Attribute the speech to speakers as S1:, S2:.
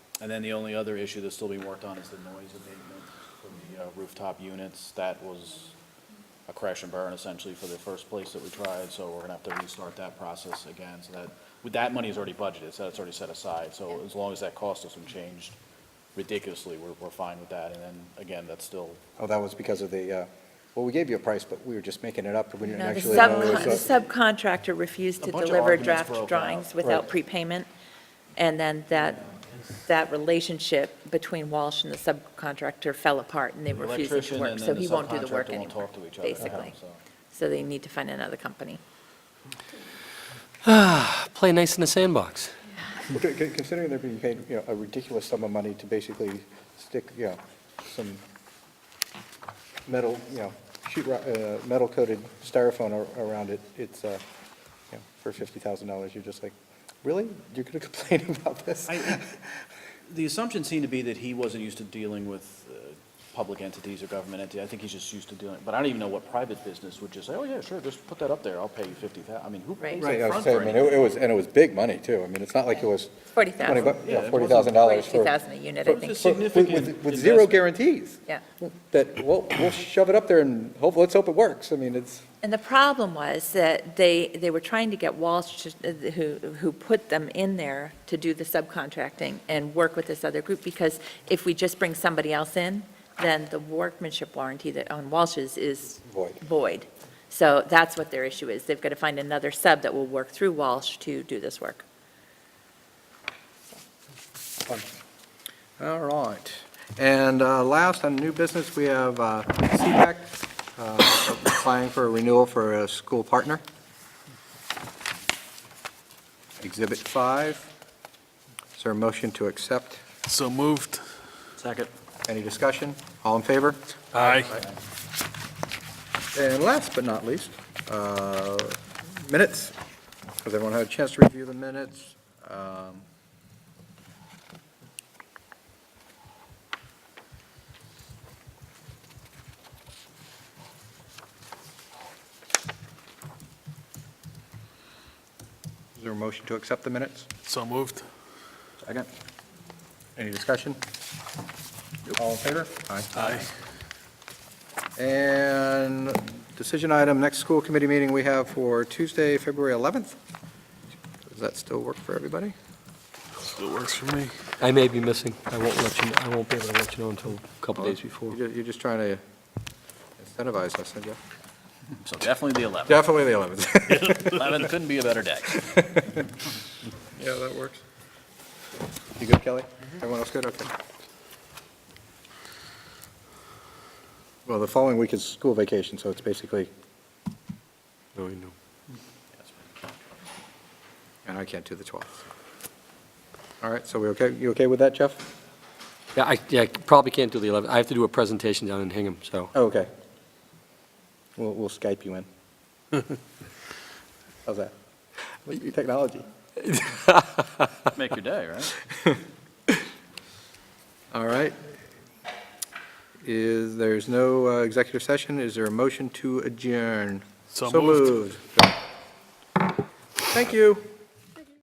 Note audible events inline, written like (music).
S1: And then the only other issue that's still being worked on is the noise abatement for the uh, rooftop units. That was a crash and burn essentially for the first place that we tried, so we're gonna have to restart that process again. So that, with that money is already budgeted, so that's already set aside. So as long as that cost doesn't change ridiculously, we're, we're fine with that. And then, again, that's still,
S2: Oh, that was because of the, uh, well, we gave you a price, but we were just making it up, and we didn't
S3: No, the
S2: actually know.
S3: subcon-
S2: so-
S3: the subcontractor refused
S1: A
S3: to
S1: bunch of
S3: deliver
S1: arguments broke
S3: draft
S1: out.
S3: drawings without
S2: Right.
S3: prepayment, and then that, that relationship between Walsh and the subcontractor fell apart, and they
S1: the
S3: were refusing to
S1: electrician
S3: work,
S1: and
S3: so
S1: then the
S3: he won't do the work
S1: subcontractor
S3: anymore,
S1: won't talk to each other. Uh-huh.
S3: basically.
S1: so.
S3: So they need to find another company.
S4: Play nice in the sandbox.
S2: Okay, con- Considering they're being paid, you know, a ridiculous sum of money to basically stick, you know, some metal, you know, sheet, ro- uh, metal coated styrofoam ar- around it, it's, uh, you know, for fifty thousand dollars, you're just like, really? You're gonna (laughs) complain about this? (laughs)
S1: I- I- The assumption seemed to be that he wasn't used to dealing with uh, public entities or government entities. I think he's just used to dealing, but I don't even know what private business would just say, oh, yeah, sure, just put that up there, I'll pay you fifty thousand. I mean, who
S3: Right.
S1: pays
S2: Right, I
S1: up
S2: was
S1: front
S2: saying,
S1: for
S2: I mean,
S1: anything?
S2: it it was, and it was big money, too. I mean, it's not like it was.
S3: 40,000.
S2: 20 bu-
S1: Yeah,
S2: Yeah,
S1: it wasn't-
S2: forty thousand dollars for.
S3: 40,000 a unit, I
S1: It was
S3: think.
S1: a significant
S2: With- with- With zero
S1: investment.
S2: guarantees.
S3: Yeah.
S2: That, we'll, we'll shove it up there and hope, let's hope it works. I mean, it's,
S3: And the problem was that they, they were trying to get Walsh, to- who, who put them in there to do the subcontracting and work with this other group, because if we just bring somebody else in, then the workmanship warranty that on Walsh's is
S2: Void.
S3: void. So that's what their issue is. They've got to find another sub that will work through Walsh to do this work.
S2: all right. And uh, last, on new business, we have uh, CPAC uh, applying for a renewal for a school partner. Exhibit five. Is there a motion to accept?
S5: So moved.
S1: Second.
S2: Any discussion? All in favor?
S5: Aye.
S2: And last but not least, uh, minutes. Has everyone had a chance to review the minutes? Um, Is there a motion to accept the minutes?
S5: So moved.
S2: Second. Any discussion? All in favor? Aye.
S5: Aye.
S2: And decision item, next school committee meeting we have for Tuesday, February 11th. Does that still work for everybody?
S5: Still works for me.
S4: I may be missing. I won't let you, I won't be able to let you know until a couple days before.
S2: Oh. You're ju- you're just trying to incentivize us, aren't you?
S1: So definitely the eleventh.
S2: Definitely the (laughs) 11th.
S1: Eleventh couldn't be a better
S2: (laughs)
S1: day.
S2: Yeah, that works. You good, Kelly? Everyone else good? Okay. Well, the following week is school vacation, so it's basically,
S4: No, you know.
S2: and I can't do the 12th. All right, so we okay, you okay with that, Jeff?
S4: Yeah, I, yeah, I probably can't do the 11th. I have to do a presentation down in Hingham, so.
S2: Oh, Okay. We'll, we'll Skype (laughs) you in. How's that? Technology.
S1: Make your day, right?
S2: All right. Is, there's no uh, executive session, is there a motion to adjourn?
S5: So moved.
S2: moved. Thank you.